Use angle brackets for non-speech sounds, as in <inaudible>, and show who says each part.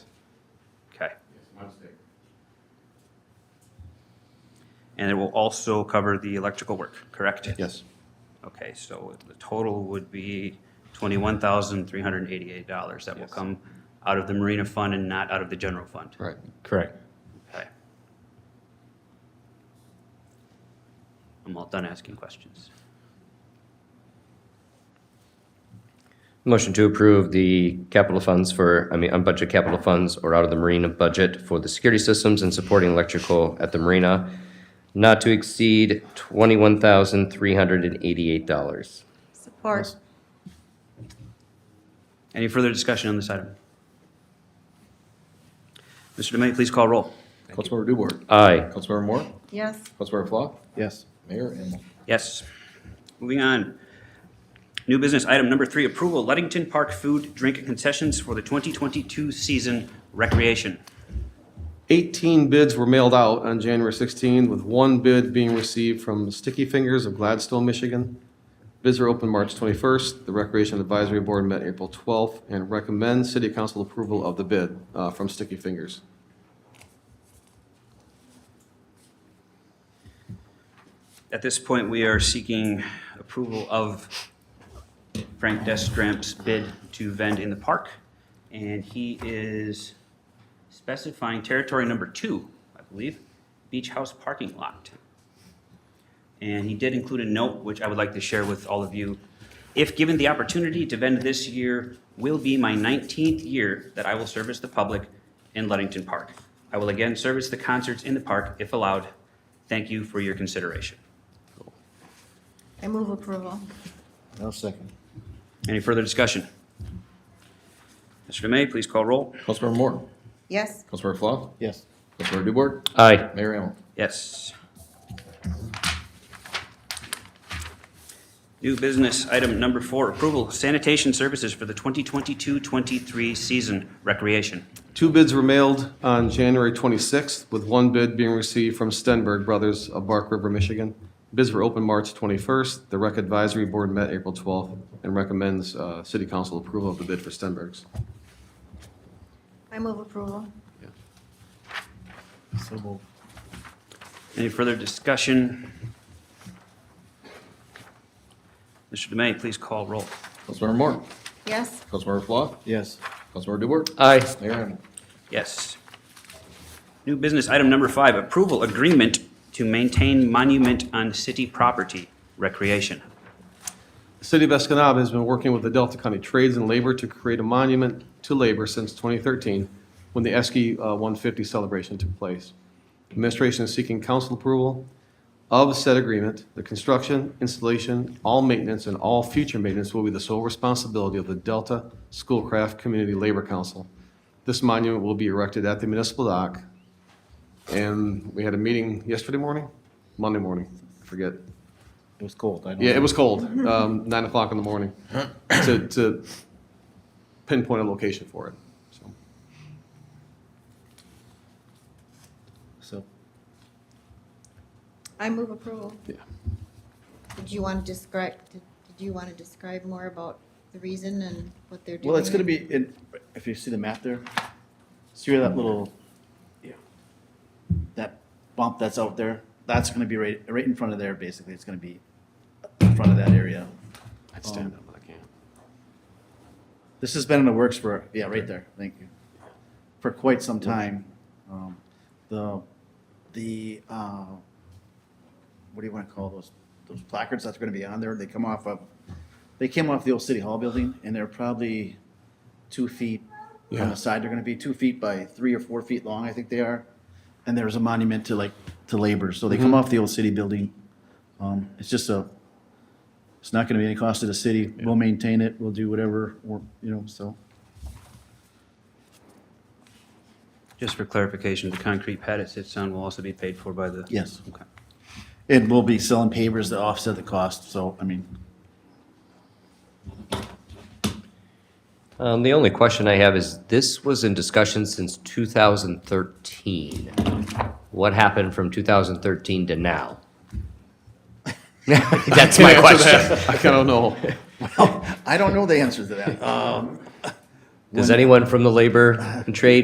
Speaker 1: And it will also cover the electrical work, correct?
Speaker 2: Yes.
Speaker 1: Okay, so the total would be twenty-one thousand, three hundred and eighty-eight dollars that will come out of the Marina Fund and not out of the general fund.
Speaker 2: Right.
Speaker 3: Correct.
Speaker 1: Okay. I'm all done asking questions.
Speaker 3: Motion to approve the capital funds for, I mean, unbudgeted capital funds or out of the marina budget for the security systems and supporting electrical at the marina, not to exceed twenty-one thousand three hundred and eighty-eight dollars.
Speaker 4: Support.
Speaker 1: Any further discussion on this item? Mr. Demay, please call roll.
Speaker 5: Councilmember Dubois.
Speaker 3: Aye.
Speaker 5: Councilmember Moore.
Speaker 4: Yes.
Speaker 5: Councilmember Flah.
Speaker 2: Yes.
Speaker 5: Mayor Engel.
Speaker 1: Yes. Moving on. New business item number three, approval Luddington Park food drink concessions for the 2022 season recreation.
Speaker 2: 18 bids were mailed out on January 16, with one bid being received from Sticky Fingers of Gladstone, Michigan. Bids were open March 21st. The Recreation Advisory Board met April 12th and recommends city council approval of the bid uh, from Sticky Fingers.
Speaker 1: At this point, we are seeking approval of Frank Destramp's bid to vend in the park, and he is specifying territory number two, I believe, Beach House parking lot. And he did include a note, which I would like to share with all of you. If given the opportunity to vend this year, will be my 19th year that I will service the public in Luddington Park. I will again service the concerts in the park if allowed. Thank you for your consideration.
Speaker 4: I move approval.
Speaker 5: I'll second.
Speaker 1: Any further discussion? Mr. Demay, please call roll.
Speaker 5: Councilmember Moore.
Speaker 4: Yes.
Speaker 5: Councilmember Flah.
Speaker 2: Yes.
Speaker 5: Councilmember Dubois.
Speaker 3: Aye.
Speaker 5: Mayor Engel.
Speaker 1: Yes. New business, item number four, approval of sanitation services for the 2022-23 season recreation.
Speaker 2: Two bids were mailed on January 26th, with one bid being received from Stenberg Brothers of Bark River, Michigan. Bids were open March 21st. The Rec Advisory Board met April 12th and recommends uh, city council approval of the bid for Stenberg's.
Speaker 4: I move approval.
Speaker 1: Any further discussion? Mr. Demay, please call roll.
Speaker 5: Councilmember Moore.
Speaker 4: Yes.
Speaker 5: Councilmember Flah.
Speaker 2: Yes.
Speaker 5: Councilmember Dubois.
Speaker 3: Aye.
Speaker 5: Mayor Engel.
Speaker 1: Yes. New business, item number five, approval agreement to maintain monument on city property recreation.
Speaker 2: The City of Escanaba has been working with the Delta County Trades and Labor to create a monument to labor since 2013, when the ESCE uh, 150 celebration took place. Administration is seeking council approval of said agreement. The construction, installation, all maintenance, and all future maintenance will be the sole responsibility of the Delta Schoolcraft Community Labor Council. This monument will be erected at the municipal dock. And we had a meeting yesterday morning, Monday morning, I forget.
Speaker 6: It was cold. I don't
Speaker 2: Yeah, it was cold, um, nine o'clock in the morning, to, to pinpoint a location for it, so.
Speaker 6: So
Speaker 4: I move approval.
Speaker 2: Yeah.
Speaker 4: Did you want to describe, did did you want to describe more about the reason and what they're doing?
Speaker 6: well, it's going to be in, if you see the map there, see where that little yeah that bump that's out there. That's going to be right right in front of there. Basically, it's going to be in front of that area. Um,
Speaker 2: I'd stand up, but I can't.
Speaker 6: This has been in the works for yeah, right there. Thank you for quite some time. Um, the the uh, what do you want to call those those placards that's going to be on there? They come off of they came off the old city hall building, and they're probably two feet on
Speaker 2: Yeah.
Speaker 6: the side. They're going to be two feet by three or four feet long, I think they are. And there's a monument to like to labor, so they come off the old city building. Um, it's just a it's not going to be any cost to the city. We'll maintain it. We'll do whatever we're, you know. So
Speaker 1: Just for clarification, the concrete pad it sits on will also be paid for by the?
Speaker 6: yes.
Speaker 1: Okay.
Speaker 6: And we'll be selling pavers to offset the cost, so, I mean,
Speaker 3: Um, the only question I have is, this was in discussion since two thousand thirteen. What happened from two thousand thirteen to now? <laughs> That's my
Speaker 6: <laughs>
Speaker 3: question.
Speaker 2: I kind of know.
Speaker 6: I don't know the answer to that.
Speaker 3: Um, Does anyone from the labor and trade